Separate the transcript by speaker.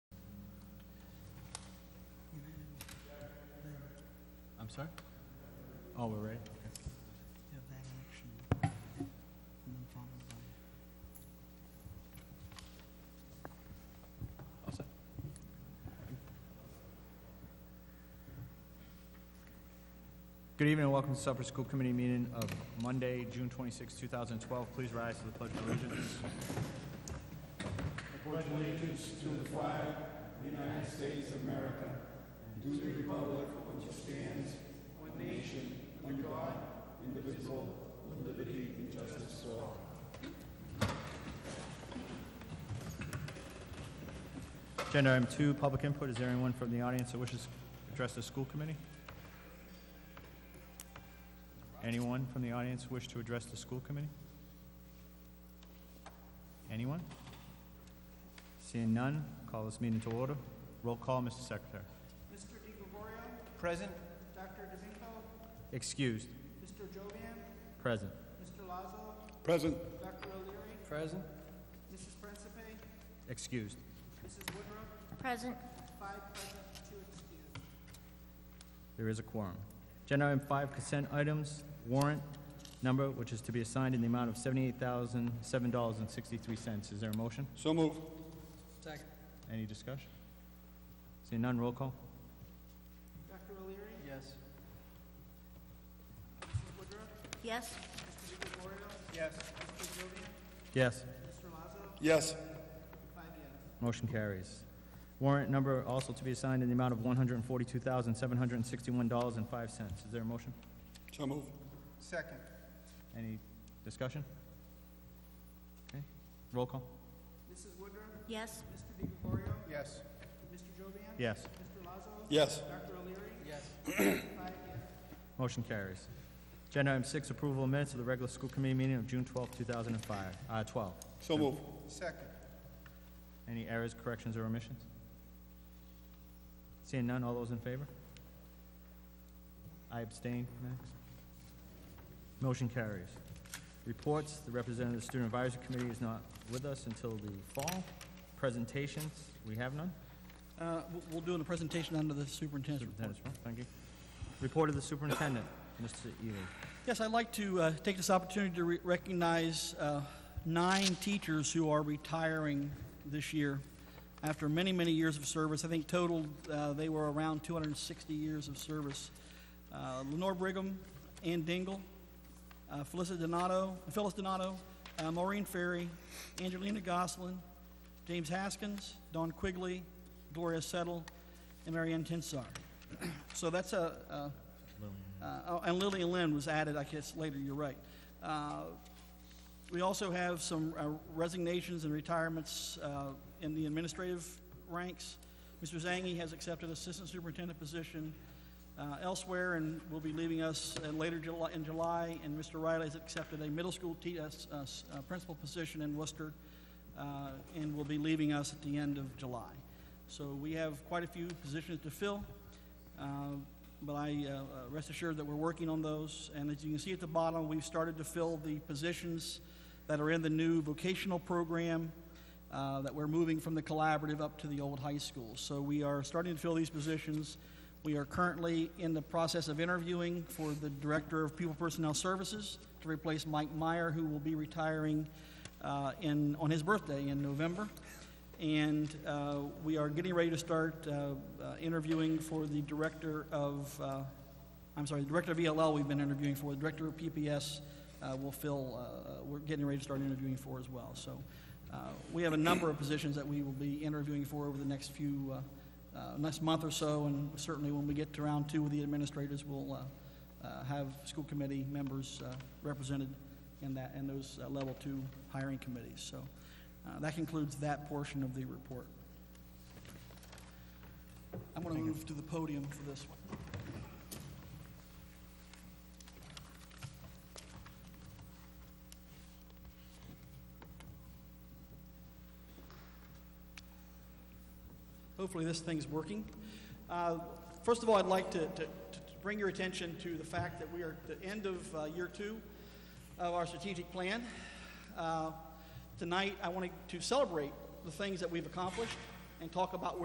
Speaker 1: sorry? Oh, we're ready? Okay.
Speaker 2: You have that action, and then followed by...
Speaker 1: All set. Good evening and welcome to Supper School Committee meeting of Monday, June 26, 2012. Please rise to the Pledge of Allegiance. Agenda item two, public input. Is there anyone from the audience that wishes to address the school committee? Anyone from the audience wish to address the school committee? Anyone? Seeing none, call this meeting to order. Roll call, Mr. Secretary.
Speaker 2: Mr. DiGregorio,
Speaker 1: Present.
Speaker 2: Dr. D'Amico,
Speaker 1: Excused.
Speaker 2: Mr. Jovian,
Speaker 1: Present.
Speaker 2: Mr. Lazo,
Speaker 3: Present.
Speaker 2: Dr. O'Leary,
Speaker 3: Present.
Speaker 2: Mrs. Principe,
Speaker 1: Excused.
Speaker 2: Mrs. Woodruff,
Speaker 4: Present.
Speaker 2: five present, two excused.
Speaker 1: There is a quorum. Agenda item five, consent items, warrant number, which is to be assigned in the amount of seventy-eight thousand, seven dollars and sixty-three cents. Is there a motion?
Speaker 3: So moved.
Speaker 2: Second.
Speaker 1: Any discussion? Seeing none, roll call.
Speaker 2: Dr. O'Leary,
Speaker 3: Yes.
Speaker 2: Mrs. Woodruff,
Speaker 4: Yes.
Speaker 2: Mr. DiGregorio,
Speaker 3: Yes.
Speaker 2: Mr. Jovian,
Speaker 1: Yes.
Speaker 2: Mr. Lazo,
Speaker 3: Yes.
Speaker 2: five yes.
Speaker 1: Motion carries. Warrant number also to be assigned in the amount of one hundred and forty-two thousand, seven hundred and sixty-one dollars and five cents. Is there a motion?
Speaker 3: So moved.
Speaker 2: Second.
Speaker 1: Any discussion? Okay, roll call.
Speaker 2: Mrs. Woodruff,
Speaker 4: Yes.
Speaker 2: Mr. DiGregorio,
Speaker 3: Yes.
Speaker 2: Mr. Jovian,
Speaker 1: Yes.
Speaker 2: Mr. Lazo,
Speaker 3: Yes.
Speaker 2: Dr. O'Leary,
Speaker 3: Yes.
Speaker 2: five yes.
Speaker 1: Motion carries. Agenda item six, approval of minutes of the regular school committee meeting of June twelfth, two thousand and five, uh, twelve.
Speaker 3: So moved.
Speaker 2: Second.
Speaker 1: Any errors, corrections, or omissions? Seeing none, all those in favor? I abstain, Max. Motion carries. Reports, the representative of the Student Advisory Committee is not with us until the fall. Presentations, we have none.
Speaker 5: Uh, we'll- We'll do in the presentation under the superintendent's report.
Speaker 1: Superintendent's report, thank you. Report of the superintendent, Mr. Ely.
Speaker 5: Yes, I'd like to uh, take this opportunity to re- recognize uh, nine teachers who are retiring this year after many, many years of service. I think total, uh, they were around 260 years of service. Uh, Lenore Brigham, Ann Dingle, uh, Felicity Donato, Phyllis Donato, uh, Maureen Ferry, Angelina Goslin, James Haskins, Don Quigley, Gloria Settle, and Marianne Tinsar. So that's a, a uh, oh, and Lillian Lynn was added, I guess, later, you're right. Uh, We also have some uh, resignations and retirements uh, in the administrative ranks. Mr. Zangi has accepted Assistant Superintendent position uh, elsewhere and will be leaving us uh, later Juli- in July, and Mr. Riley has accepted a middle school te- uh, s- uh, s- uh, principal position in Worcester uh, and will be leaving us at the end of July. So we have quite a few positions to fill. Uh, but I uh, uh, rest assured that we're working on those. And as you can see at the bottom, we've started to fill the positions that are in the new vocational program uh, that we're moving from the collaborative up to the old high school. So we are starting to fill these positions. We are currently in the process of interviewing for the Director of Pupil Personnel Services to replace Mike Meyer, who will be retiring uh, in, on his birthday in November. And uh, we are getting ready to start uh, uh, interviewing for the director of, uh, I'm sorry, the director of ELL we've been interviewing for, the director of PPS uh, will fill, uh, uh, we're getting ready to start interviewing for as well. So uh, we have a number of positions that we will be interviewing for over the next few, uh, uh, next month or so, and certainly when we get to round two with the administrators, we'll uh, uh, have school committee members uh, represented in that, in those uh, level two hiring committees. So uh, That concludes that portion of the report. I'm going to move to the podium for this one. Hopefully, this thing's working. Uh, First of all, I'd like to, to, to bring your attention to the fact that we are at the end of uh, year two of our strategic plan. Uh, Tonight, I wanted to celebrate the things that we've accomplished and talk about where